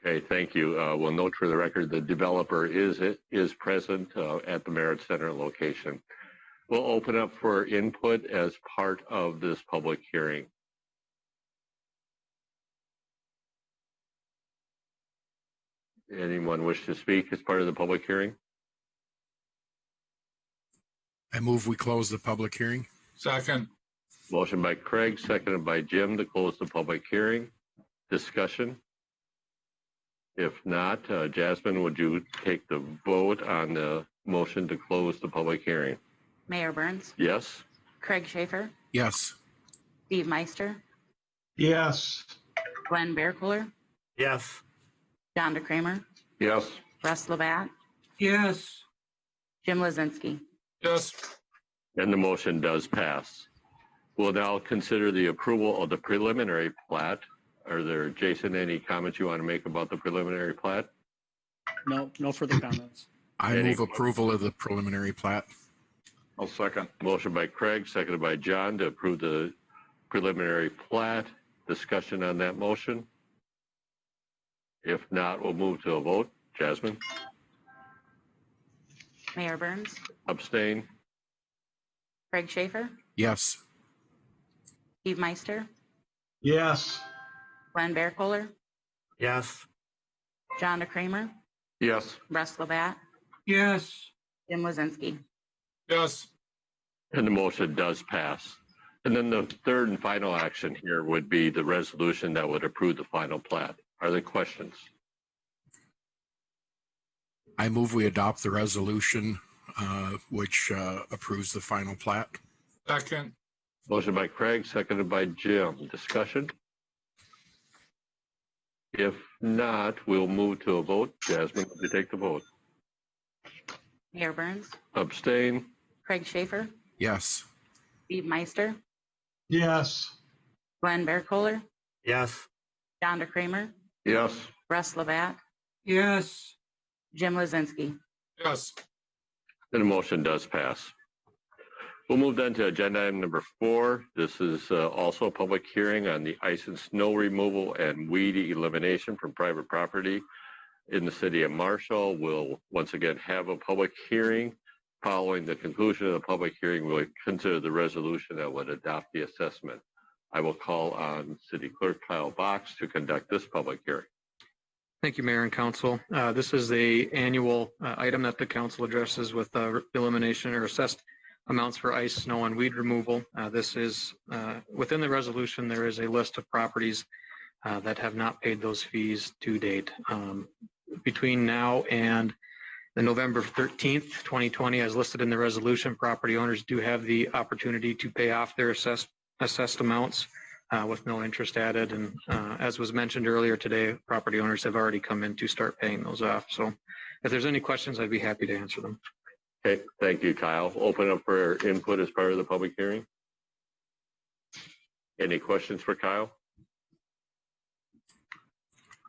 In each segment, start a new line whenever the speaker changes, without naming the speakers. Okay, thank you. Uh, We'll note for the record, the developer is, is present uh, at the Merit Center location. We'll open up for input as part of this public hearing. Anyone wish to speak as part of the public hearing?
I move we close the public hearing.
Second,
Motion by Craig, seconded by Jim to close the public hearing. Discussion? If not, uh, Jasmine, would you take the vote on the motion to close the public hearing?
Mayor Burns,
Yes?
Craig Schaefer,
Yes.
Steve Meister,
Yes.
Glenn Bearcooler,
Yes.
John DeCramer,
Yes.
Russ Labatt,
Yes.
Jim Lozinski.
yes,
And the motion does pass. We'll now consider the approval of the preliminary plat. Are there, Jason, any comments you want to make about the preliminary plat?
No, no further comments.
I
Any-
move approval of the preliminary plat.
I'll second,
Motion by Craig, seconded by John to approve the preliminary plat. Discussion on that motion? If not, we'll move to a vote. Jasmine,
Mayor Burns,
abstain?
Craig Schaefer,
Yes.
Steve Meister,
Yes.
Glenn Bearcooler,
Yes.
John DeCramer,
Yes.
Russ Labatt,
Yes.
Jim Lozinski.
yes,
And the motion does pass. And then the third and final action here would be the resolution that would approve the final plat. Are there questions?
I move we adopt the resolution uh, which uh, approves the final plat.
second,
Motion by Craig, seconded by Jim. Discussion? If not, we'll move to a vote. Jasmine, would you take the vote?
Mayor Burns,
Abstain?
Craig Schaefer,
Yes.
Steve Meister,
Yes.
Glenn Bearcooler,
Yes.
John DeCramer,
Yes.
Russ Labatt,
Yes.
Jim Lozinski.
yes,
And the motion does pass. We'll move then to agenda item number four. This is uh, also a public hearing on the ice and snow removal and weed elimination from private property in the city of Marshall. We'll once again have a public hearing. Following the conclusion of the public hearing, we'll consider the resolution that would adopt the assessment. I will call on City Clerk Kyle Box to conduct this public hearing.
Thank you, Mayor and Council. Uh, This is the annual uh, item that the council addresses with uh, elimination or assessed amounts for ice, snow, and weed removal. Uh, This is, uh, within the resolution, there is a list of properties uh, that have not paid those fees to date. Um, Between now and the November 13th, 2020, as listed in the resolution, property owners do have the opportunity to pay off their assessed, assessed amounts uh, with no interest added. And uh, as was mentioned earlier today, property owners have already come in to start paying those off. So if there's any questions, I'd be happy to answer them.
Okay, thank you, Kyle. Open up for input as part of the public hearing. Any questions for Kyle?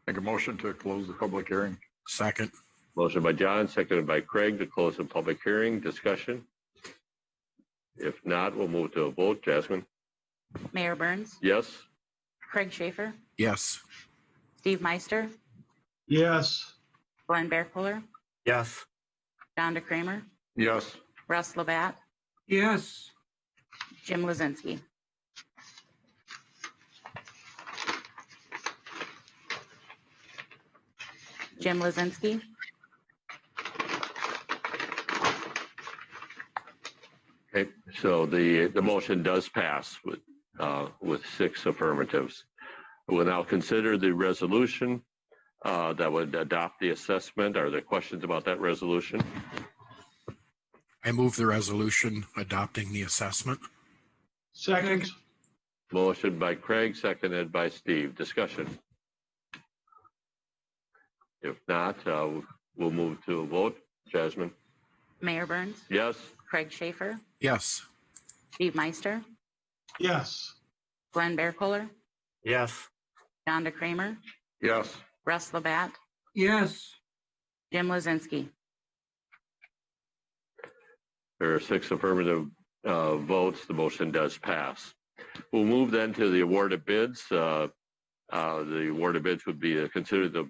make a motion to close the public hearing.
Second.
Motion by John, seconded by Craig to close the public hearing. Discussion? If not, we'll move to a vote. Jasmine?
Mayor Burns,
Yes?
Craig Schaefer,
Yes.
Steve Meister,
Yes.
Glenn Bearcooler,
Yes.
John DeCramer,
Yes.
Russ Labatt,
Yes.
Jim Lozinski. Jim Lozinski.
Okay, so the, the motion does pass with, uh, with six affirmatives. We'll now consider the resolution, uh, that would adopt the assessment. Are there questions about that resolution?
I move the resolution adopting the assessment.
Second.
Motion by Craig, seconded by Steve. Discussion. If not, uh, we'll move to a vote. Jasmine?
Mayor Burns,
Yes?
Craig Schaefer,
Yes.
Steve Meister,
Yes.
Glenn Bearcooler,
Yes.
John DeCramer,
Yes.
Russ Labatt,
Yes.
Jim Lozinski.
There are six affirmative uh, votes. The motion does pass. We'll move then to the award of bids. Uh, uh, The award of bids would be to consider the